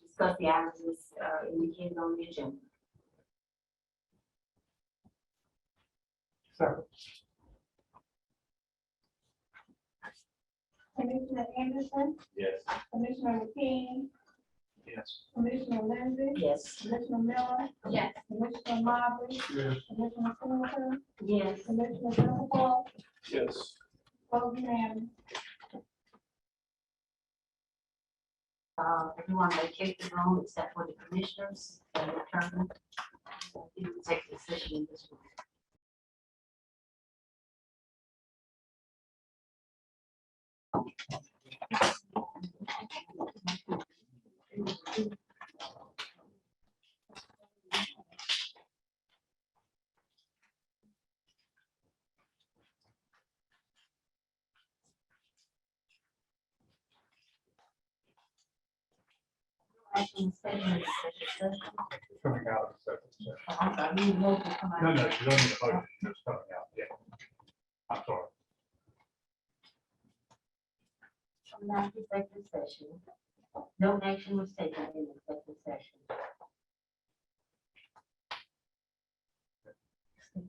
discuss the items as, uh, indicated on the agenda. Second. Commissioner Anderson, Yes. Commissioner McKean, Yes. Commissioner Lindsey, Yes. Commissioner Miller, Yes. Commissioner Mobley, Yes. Commissioner Singleton, Yes. Commissioner Dunkle, Yes. vote unanimous. Uh, everyone vacate the room except for the commissioners and the chairman. You can take the decision in this room. Action is taken in executive session. Coming out of second session. Uh, I'm sorry, we need to come out. No, no, you don't need a motion, it's coming out, yeah. I'm sorry. From that executive session. No action was taken in executive session. I'd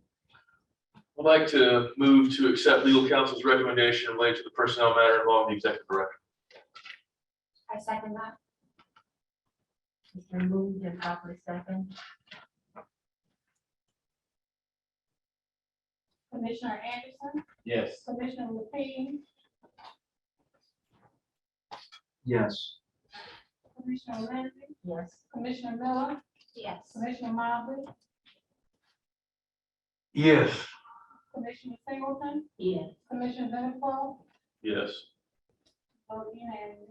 like to move to accept legal counsel's recommendation related to the personnel matter involving the executive director. I second that. It's been moved and properly second. Commissioner Anderson, Yes. Commissioner McKean, Yes. Commissioner Lindsey, Yes. Commissioner Miller, Yes. Commissioner Mobley, Yes. Commissioner Singleton, Yes. Commissioner Dunkle, Yes. vote unanimous.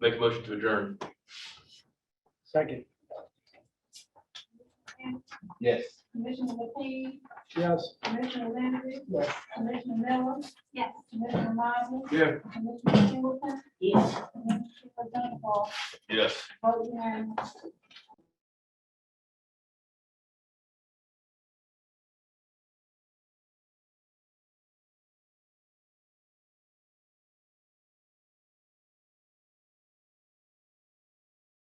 Make a motion to adjourn. Second. Yes. Commissioner McKean, Yes. Commissioner Lindsey, Yes. Commissioner Miller, Yes. Commissioner Mobley, Yeah. Commissioner Singleton, Yes. Commissioner Dunkle, Yes. vote unanimous.